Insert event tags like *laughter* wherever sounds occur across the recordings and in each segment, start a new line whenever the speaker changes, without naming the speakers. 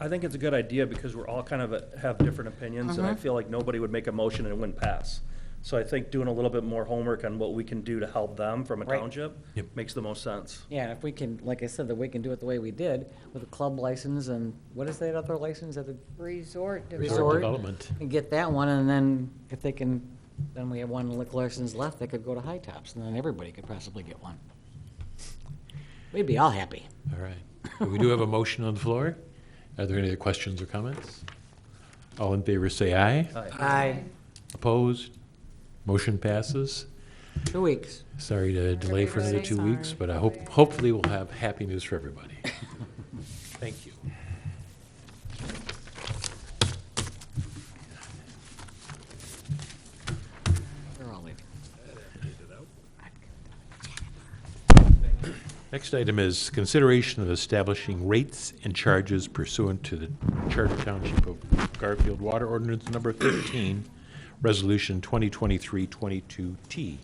I think it's a good idea because we're all kind of, a- have different opinions, and I feel like nobody would make a motion and it wouldn't pass. So I think doing a little bit more homework on what we can do to help them from a
Right.
township
Yep.
makes the most sense.
Yeah, and if we can, like I said, that we can do it the way we did with a club license and what is that other license at the
Resort development.
resort?
development.
And get that one and then if they can, then we have one liquor license left that could go to High Tops and then everybody could possibly get one. We'd be all happy.
All right. Well, We do have a motion on the floor. Are there any other questions or comments? All in favor, say aye.
Aye.
Opposed? Motion passes.
Two weeks.
Sorry to delay for another two
Everybody,
weeks,
sorry.
but I hope, hopefully we'll have happy news for everybody. Thank you.
They're all leaving.
Next item is consideration of establishing rates and charges pursuant to the Charter Township of Garfield Water Ordinance Number 13, Resolution 2023-22T.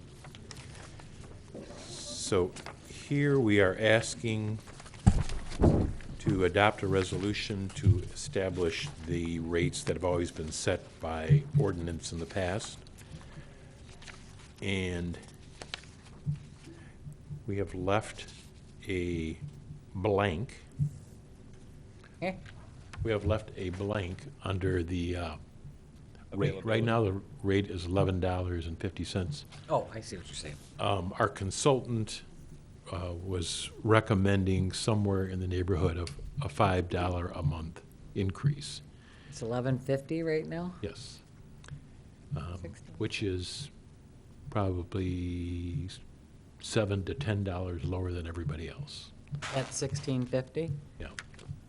So here we are asking to adopt a resolution to establish the rates that have always been set by ordinance in the past. And we have left a blank.
Eh,
We have left a blank under the uh, rate. Right now, the rate is eleven dollars and fifty cents. Um,
Oh, I see what you're saying.
Our consultant uh, was recommending somewhere in the neighborhood of a five dollar a month increase.
It's eleven fifty right now?
Yes. Um, Which is probably seven to ten dollars lower than everybody else.
At sixteen fifty?
Yeah.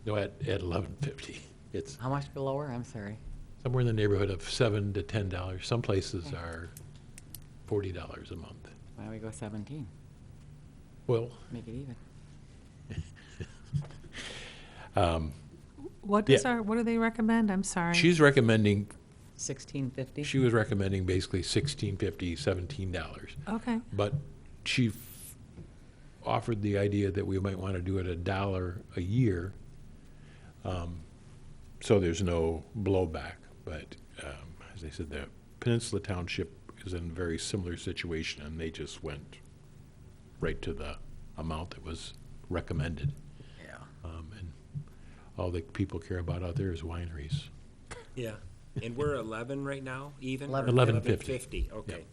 No, at, at eleven fifty. It's
How much lower? I'm sorry.
somewhere in the neighborhood of seven to ten dollars. Some places are forty dollars a month.
Why don't we go seventeen?
Well, *laughs* um,
Make it even.
What does
Yeah.
our, what do they recommend? I'm sorry.
she's recommending,
Sixteen fifty?
she was recommending basically sixteen fifty, seventeen dollars.
Okay,
But she f- offered the idea that we might want to do it a dollar a year, um, so there's no blowback. But um, as I said, the Peninsula Township is in a very similar situation, and they just went right to the amount that was recommended.
Yeah.
Um, And all the people care about out there is wineries.
Yeah, and we're eleven right now, even? or
11. 11.50.
11.50, okay.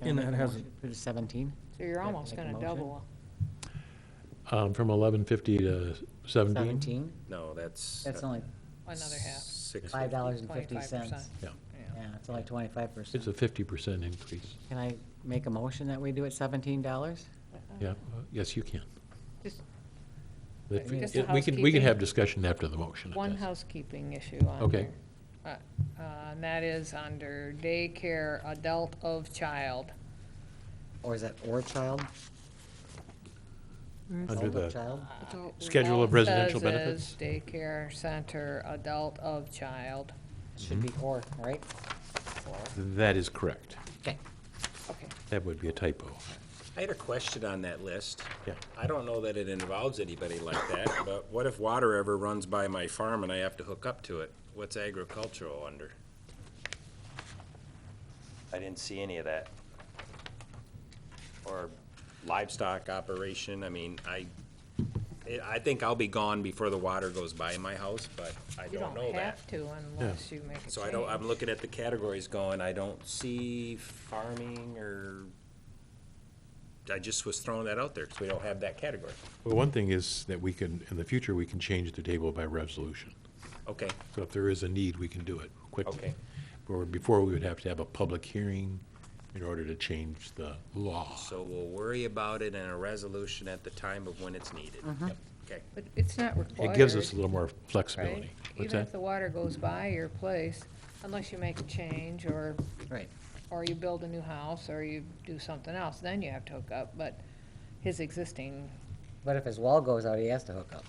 And that has,
Seventeen?
So you're almost
make a
gonna
motion.
double.
Um, From 11.50 to 17?
Seventeen?
No, that's. uh,
That's only
Another
Six.
five dollars and fifty cents.
25%.
Yeah,
Yeah, it's only twenty-five
it's
percent.
a 50% increase.
Can I make a motion that we do it seventeen dollars?
Yeah, uh, yes, you can.
Just-
But we-
Just a
We can, we can
housekeeping-
have discussion after the motion. if
One
that's-
housekeeping issue on
Okay.
here. Uh, uh, And that is under daycare, adult of child.
Or is that or child?
Under
Older
the,
child?
Schedule of
All it Uh, says
residential
is
benefits?
Daycare center, adult of child.
Should be or, right?
that is correct.
Okay.
Okay.
That would be a typo.
I had a question on that list.
Yeah.
I don't know that it involves anybody like that, but what if water ever runs by my farm and I have to hook up to it? What's agricultural under? I didn't see any of that. Or livestock operation, I mean, I, I- I think I'll be gone before the water goes by my house, but I
You
don't know that.
don't have to unless you make a change.
So I don't, I'm looking at the categories going, I don't see farming or, I just was throwing that out there, because we don't have that category.
Well, one thing is that we can, in the future, we can change the table by resolution.
Okay,
So if there is a need, we can do it quickly.
Okay.
Or before, we would have to have a public hearing in order to change the law.
so we'll worry about it in a resolution at the time of when it's needed. Okay,
But it's not required.
It gives us a little more
right?
flexibility. What's
Even if
that?
the water goes by your place, unless you make a change or
Right.
or you build a new house, or you do something else, then you have to hook up, but his existing.
But if his wall goes out, he has to hook up.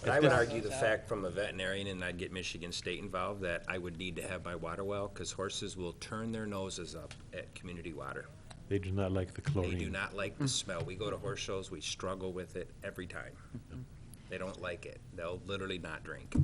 but I would argue the fact from a veterinarian, and I'd get Michigan State involved, that I would need to have my water well, because horses will turn their noses up at community water.
They do not like the
They
chlorine.
do not like the smell. We go to horse shows, we struggle with it every time. They don't like it. They'll literally not drink.